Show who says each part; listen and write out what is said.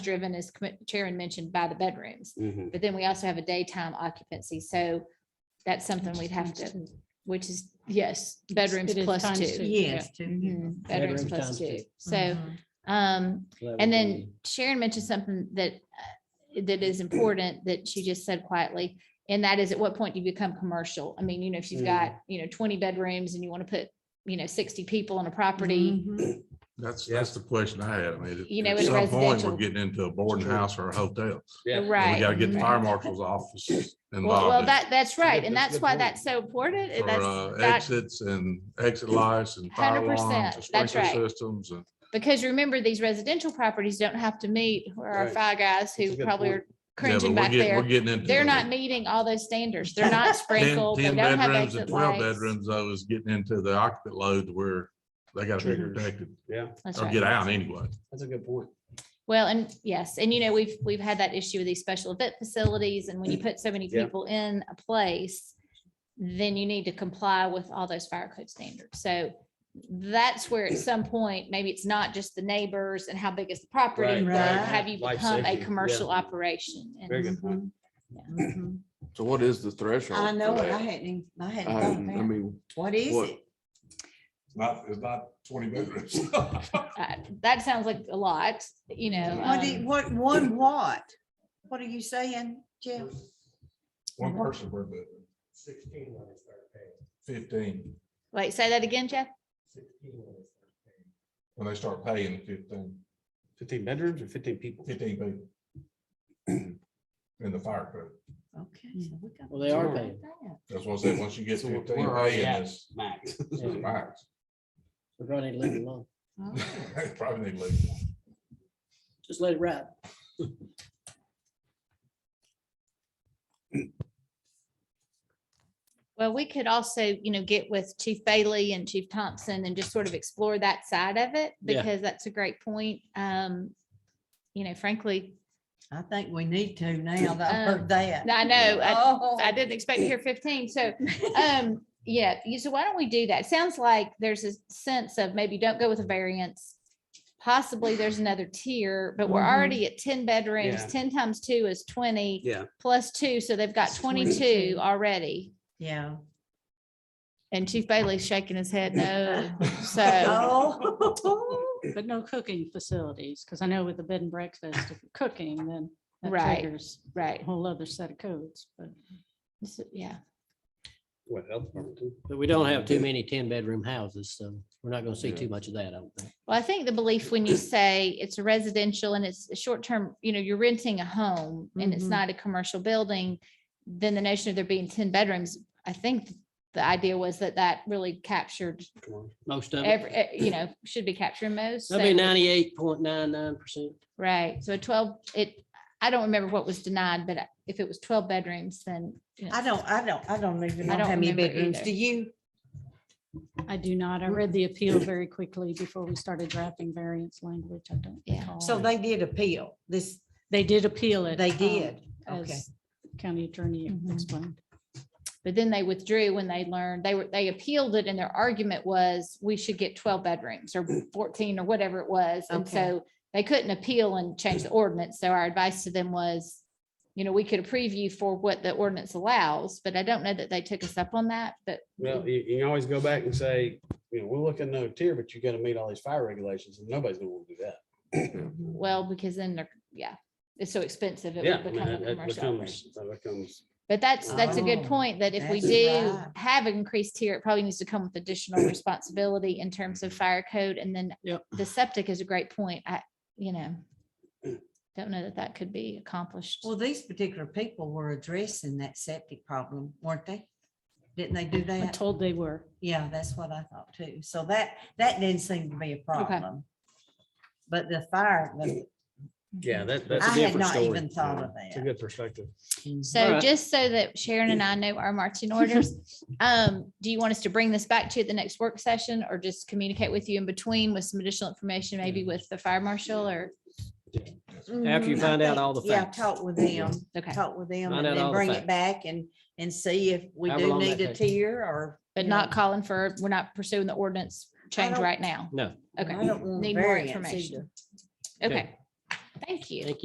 Speaker 1: driven, as Commi- Chairman mentioned, by the bedrooms.
Speaker 2: Mm-hmm.
Speaker 3: Mhm.
Speaker 1: But then we also have a daytime occupancy, so that's something we'd have to, which is, yes, bedrooms
Speaker 4: It is
Speaker 1: plus
Speaker 4: times two.
Speaker 1: two.
Speaker 5: Yes. Mm-hmm. too.
Speaker 1: Mhm, Bedrooms
Speaker 6: Bedrooms
Speaker 1: plus
Speaker 6: times
Speaker 1: two.
Speaker 6: two.
Speaker 1: So,
Speaker 5: Mhm.
Speaker 1: um,
Speaker 6: So that would
Speaker 1: and
Speaker 6: be-
Speaker 1: then Sharon mentioned something that, uh, that is important that she just said quietly. And that is at what point do you become commercial? I mean, you know, if you've
Speaker 6: Mm.
Speaker 1: got, you know, twenty bedrooms and you want to put, you know, sixty people on a
Speaker 5: Mm-hmm.
Speaker 1: property,
Speaker 4: Mhm.
Speaker 7: That's, that's the question I had. I mean,
Speaker 1: You
Speaker 7: at-
Speaker 1: know,
Speaker 7: at
Speaker 1: in
Speaker 7: some point,
Speaker 1: residential-
Speaker 7: we're getting into a boarding house or a hotel.
Speaker 6: Yeah.
Speaker 7: And We
Speaker 1: right?
Speaker 7: gotta get the
Speaker 1: Mhm.
Speaker 7: fire marshal's office
Speaker 1: Well, well,
Speaker 7: involved in-
Speaker 1: that, that's right.
Speaker 6: Yeah,
Speaker 1: And
Speaker 6: that's a
Speaker 1: that's
Speaker 6: good
Speaker 1: why
Speaker 6: point.
Speaker 1: that's so important. And
Speaker 7: for uh,
Speaker 1: that's, that,
Speaker 7: exits and exit lights and fire
Speaker 1: 100%,
Speaker 7: alarms and
Speaker 1: that's
Speaker 7: sprinkler
Speaker 1: right.
Speaker 7: systems and.
Speaker 1: because remember, these residential properties don't have to meet where our
Speaker 6: Right.
Speaker 1: five guys
Speaker 6: That's a
Speaker 1: who
Speaker 6: good
Speaker 1: probably
Speaker 6: point.
Speaker 1: are
Speaker 7: Yeah, but
Speaker 1: cringing
Speaker 7: we're
Speaker 1: back
Speaker 7: getting, we're
Speaker 1: there.
Speaker 7: getting into.
Speaker 1: They're
Speaker 7: the
Speaker 1: not meeting all those standards. They're not
Speaker 7: 10
Speaker 1: sprinkled. They
Speaker 7: 10
Speaker 1: don't have
Speaker 7: bedrooms and
Speaker 1: exit
Speaker 7: twelve
Speaker 1: lights.
Speaker 7: bedrooms though is getting into the occupant load where they gotta be
Speaker 6: Triggers.
Speaker 7: protected
Speaker 6: Yeah,
Speaker 1: That's
Speaker 7: or
Speaker 1: right.
Speaker 7: get out anyway.
Speaker 6: that's a good point.
Speaker 1: Well, and yes, and you know, we've, we've had that issue with these special event facilities and when you put so many
Speaker 6: Mm. Yeah.
Speaker 1: people in a place, then you need to comply with all those fire code standards. So that's where at some point, maybe it's not just the neighbors and how big is the property,
Speaker 6: Right,
Speaker 1: but
Speaker 5: right.
Speaker 1: have you
Speaker 6: Life
Speaker 1: become a
Speaker 6: safety, yeah.
Speaker 1: commercial operation? And
Speaker 6: Very good point.
Speaker 5: Mhm.
Speaker 8: So what is the threshold?
Speaker 5: I
Speaker 8: for
Speaker 5: know, it. I
Speaker 8: that?
Speaker 5: hadn't, I hadn't
Speaker 8: Um, I
Speaker 5: thought
Speaker 8: I
Speaker 5: about it.
Speaker 8: mean,
Speaker 5: What is
Speaker 8: what-
Speaker 5: it?
Speaker 7: Not, it's not twenty bedrooms.
Speaker 1: uh, That sounds like a lot, you know.
Speaker 5: What, do-
Speaker 1: um,
Speaker 5: what, one what? What are you saying, Jeff?
Speaker 7: One person per bedroom. Sixteen when they start paying. Fifteen,
Speaker 1: Wait, say that again, Jeff?
Speaker 7: when they start paying fifteen,
Speaker 6: Fifteen bedrooms or fifteen people?
Speaker 7: fifteen people. In the fire code.
Speaker 5: Okay.
Speaker 1: Hmm.
Speaker 5: so we
Speaker 6: Mm.
Speaker 5: got to
Speaker 6: Well,
Speaker 5: talk
Speaker 6: they are
Speaker 5: about
Speaker 6: paying.
Speaker 5: that.
Speaker 7: That's what I said, once you get
Speaker 6: So we're-
Speaker 7: fifteen
Speaker 6: we're already
Speaker 7: paying,
Speaker 6: at
Speaker 7: it's
Speaker 6: Max.
Speaker 7: it's the max.
Speaker 6: We're gonna leave it alone.
Speaker 5: Oh,
Speaker 7: Probably need to leave.
Speaker 6: Just let it ride.
Speaker 1: Well, we could also, you know, get with Chief Bailey and Chief Thompson and just sort of explore that side of it
Speaker 6: Yeah.
Speaker 1: because that's a great point. Um, you know, frankly,
Speaker 5: I think we need to now that I've heard that.
Speaker 1: I know, Um, I,
Speaker 5: Oh.
Speaker 1: I didn't expect to hear fifteen, so, um, yeah, you- so why don't we do that? Sounds like there's a sense of maybe don't go with a variance. Possibly there's another tier, but we're
Speaker 5: Mhm.
Speaker 1: already at ten bedrooms,
Speaker 6: Mm-hmm. Yeah.
Speaker 1: ten times two is twenty.
Speaker 6: Yeah.
Speaker 1: Plus two, so they've got
Speaker 5: It's
Speaker 1: twenty-two
Speaker 5: 22.
Speaker 1: already,
Speaker 5: Yeah.
Speaker 1: and Chief Bailey's shaking his head no, so.
Speaker 5: Oh.
Speaker 4: But no cooking facilities, because I know with the bed and breakfast, if you're cooking, then that
Speaker 1: Right.
Speaker 4: triggers a
Speaker 1: Right.
Speaker 4: whole other set of codes, but.
Speaker 1: So, Yeah,
Speaker 7: Mm-hmm.
Speaker 9: But we don't have too many ten bedroom houses, so we're not gonna see too much of that, I don't think.
Speaker 1: well, I think the belief when you say it's a residential and it's a short term, you know, you're renting a home and it's
Speaker 5: Mhm.
Speaker 1: not a commercial building, then the notion of there being ten bedrooms, I think the idea was that that really captured
Speaker 9: Most of it,
Speaker 1: every, eh, you know, should be capturing most.
Speaker 9: that'd be
Speaker 1: so-
Speaker 9: ninety-eight point nine nine percent.
Speaker 1: Right, so a twelve, it, I don't remember what was denied, but if it was twelve bedrooms, then, you know,
Speaker 5: I don't, I don't, I don't even know
Speaker 1: I don't
Speaker 5: how many
Speaker 1: remember
Speaker 5: bedrooms.
Speaker 1: either.
Speaker 5: Do you?
Speaker 4: I do not. I
Speaker 1: Mm.
Speaker 4: read the appeal very quickly before we started drafting variance language. I don't.
Speaker 1: Yeah.
Speaker 4: recall.
Speaker 5: So they did appeal this,
Speaker 4: They did appeal it.
Speaker 1: Oh.
Speaker 5: they
Speaker 4: um,
Speaker 5: did. Okay.
Speaker 4: As county attorney
Speaker 1: Mhm.
Speaker 4: explained.
Speaker 1: but then they withdrew when they learned, they were, they appealed it and their argument was, we should get twelve bedrooms or fourteen or whatever it was. And
Speaker 5: Okay.
Speaker 1: so they couldn't appeal and change the ordinance. So our advice to them was, you know, we could approve you for what the ordinance allows, but I don't know that they took us up on that, but
Speaker 2: Well, you, you can always go back and say, you know, we'll look at another tier, but you gotta meet all these fire regulations and nobody's gonna want to do that.
Speaker 5: Mhm.
Speaker 1: well, because then they're, yeah, it's so expensive. it
Speaker 2: Yeah,
Speaker 1: would
Speaker 2: I mean,
Speaker 1: become a
Speaker 2: that that
Speaker 1: commercial
Speaker 2: becomes,
Speaker 1: operation.
Speaker 2: that becomes,
Speaker 1: But that's, that's a good
Speaker 5: Oh,
Speaker 1: point, that if we
Speaker 5: that's
Speaker 1: do
Speaker 5: right.
Speaker 1: have increased tier, it probably needs to come with additional responsibility in terms of fire code. And then
Speaker 9: Yep.
Speaker 1: the septic is a great point. I, you know, don't know that that could be accomplished.
Speaker 5: Well, these particular people were addressing that septic problem, weren't they? Didn't they do
Speaker 4: I'm
Speaker 5: that?
Speaker 4: told they were.
Speaker 5: Yeah, that's what I thought too. So that, that didn't seem to be a problem. But the fire, the-
Speaker 2: yeah, that,
Speaker 5: I
Speaker 2: that's a
Speaker 5: had
Speaker 2: different
Speaker 5: not
Speaker 2: story.
Speaker 5: even thought of
Speaker 2: It's a
Speaker 5: that.
Speaker 2: good perspective.
Speaker 1: So just so that Sharon and I know our marching orders, um, do you want us to bring this back to you at the next work session or just communicate with you in between with some additional information,
Speaker 5: Mm.
Speaker 1: maybe with the fire marshal or?
Speaker 9: After you
Speaker 5: Mhm, I
Speaker 9: find out
Speaker 5: think-
Speaker 9: all the
Speaker 5: Yeah,
Speaker 9: facts.
Speaker 5: talk with them,
Speaker 1: Okay,
Speaker 5: talk with them and
Speaker 9: Find out
Speaker 5: then
Speaker 9: all the
Speaker 5: bring
Speaker 9: facts.
Speaker 5: it back and, and see if we
Speaker 9: However
Speaker 5: do
Speaker 9: long that
Speaker 5: need a
Speaker 9: takes.
Speaker 5: tier or.
Speaker 1: but
Speaker 5: you
Speaker 1: not
Speaker 5: know,
Speaker 1: calling for, we're not pursuing the ordinance change
Speaker 5: don't-
Speaker 1: right now.
Speaker 9: No.
Speaker 1: Okay.
Speaker 5: I don't want
Speaker 1: Need more
Speaker 5: variance
Speaker 1: information.
Speaker 5: either.
Speaker 1: Okay.
Speaker 10: Thank you.
Speaker 1: Thank